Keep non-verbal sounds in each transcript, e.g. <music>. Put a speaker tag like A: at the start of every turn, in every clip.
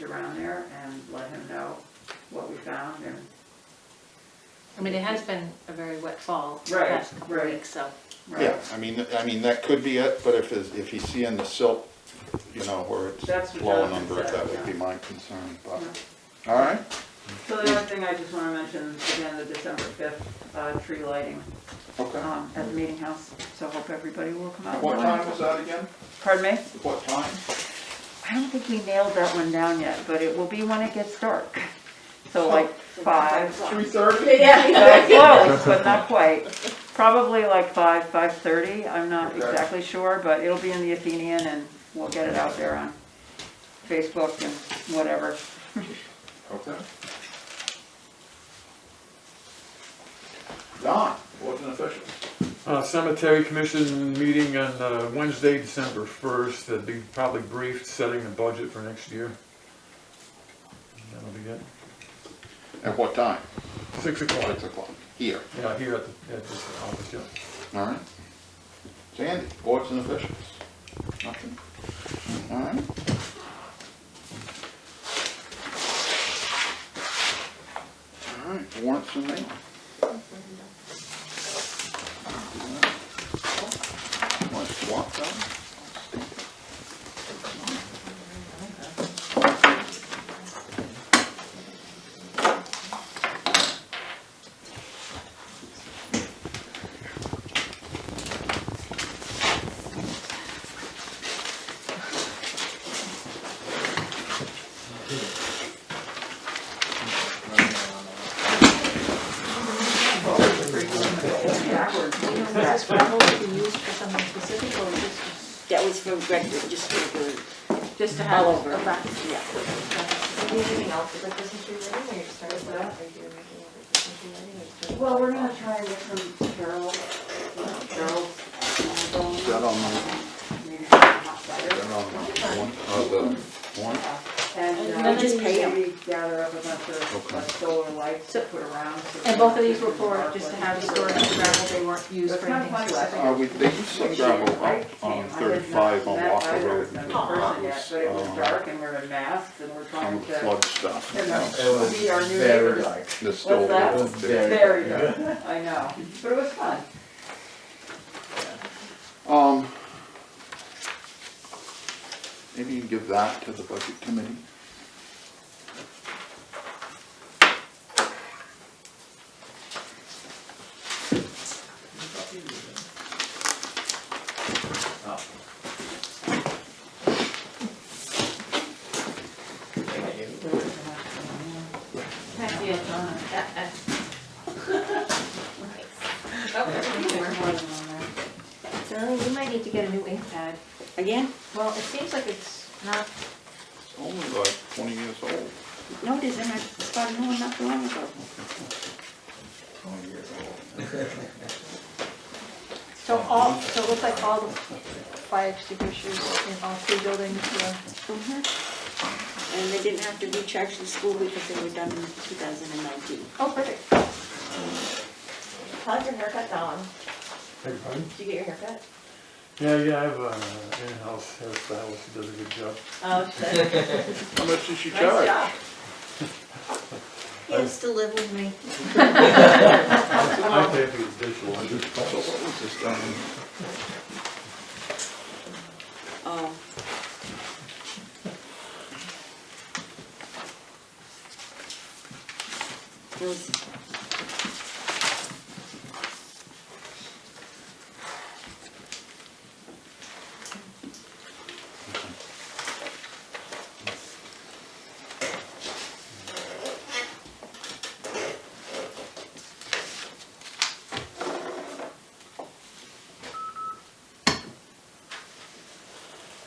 A: around there and let him know what we found and,
B: I mean, it has been a very wet fall the
A: Right,
B: past couple of
A: right.
B: weeks, so.
A: right,
C: Yeah, I mean, I mean, that could be it, but if, it's- if he's seeing the silt, you know, where
A: That's
C: it's
A: what
C: blowing
A: Jonathan
C: under it,
A: said,
C: that would
A: yeah.
C: be my concern, but,
A: Yeah.
C: all right.
A: So the other thing I just wanna mention is again, the December fifth, uh, tree lighting,
C: Okay.
A: um, at the meeting house, so hope everybody will come out. and
C: What
A: join us.
C: time was that again?
A: Pardon me?
C: What time?
A: I don't think we nailed that one down yet, but it will be when it gets dark, so like five. <laughs>
C: Three thirty?
A: Uh, Close, but not quite. Probably like five, five-thirty, I'm not
C: Okay.
A: exactly sure, but it'll be in the Athenian and we'll get it out there on Facebook and whatever.
C: Okay. Don, wasn't official.
D: Uh, Cemetery Commission meeting on uh, Wednesday, December 1st, that'd be probably briefed, setting the budget for next year. That'll be it.
C: At what time?
D: 6 o'clock,
C: Six o'clock. Here,
D: yeah, here at the, at this office, yeah.
C: all right. Sandy, boards and officials? Nothing? All right. All right, warrants and mail. Want to swap them?
E: Was this for whole to be used for something specific or just?
F: That was for Greg, just for the,
B: Just to
F: all
B: have
F: over.
B: a back.
F: Yeah.
E: Do you need anything else with the Christmas tree lighting or you just started with that? Are you making it with Christmas tree lighting or just-
A: Well, we're gonna try and get some Carol, Carol.
C: Is that on my, is that on my one, uh, the one?
A: And
B: then
A: uh,
B: just
F: pay 'em.
A: maybe gather up a bunch of
C: Okay.
A: like, solar lights to
B: So-
A: put around. so
B: And both of
A: that
B: these
A: we
B: were
A: can
B: for,
A: mark
B: just to
A: what
B: have
A: the
B: storage and gravel, they weren't used for
A: It's kind of
B: anything
A: funny, like-
B: specific.
C: Uh, we, they used some gravel out on thirty-five on Walker Road. and
A: Met Ryder,
C: that
A: but it was
C: was, uh,
A: dark and we're in masks and we're
C: Some
A: trying
C: of the
A: to,
C: flood stuff.
A: you
C: you
A: know, be our new neighbors.
C: know, The stove.
A: that?
C: was there.
A: Very dark, I know, but it was fun.
C: Um, maybe you can give that to the budget committee.
B: Heck, yeah, Donna.
E: <laughs> Oh,
B: More than one there.
E: Darling, you might need to get a new ink pad.
F: Again,
E: Well, it seems like it's not,
C: It's only like twenty years old.
F: no, it isn't, I started knowing not too long ago.
E: so all, so it looks like all the fire extinguishers in all three buildings were.
F: And they didn't have to recharge the school because they were done in 2019.
E: Oh, perfect. How's your haircut, Don?
D: Hey, pardon?
E: Did you get your haircut?
D: Yeah, yeah, I have an in-house hairstylist, who does a good job.
E: Oh, shit.
C: <laughs> How much does she
E: Nice
C: charge?
E: job. He used to live with me.
D: I pay for the dishwasher.
C: So what was this done? in-
F: Oh, It was,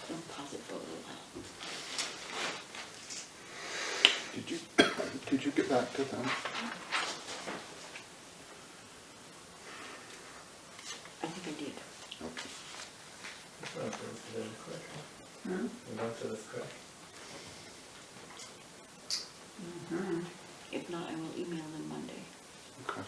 F: don't pause it for a little while.
C: Did you, did you get that to them?
F: I think I did.
C: Okay.
G: Went to the crack.
A: Hmm?
G: We went to the crack.
F: Mm-hmm. If not, I will email them Monday.
C: Okay.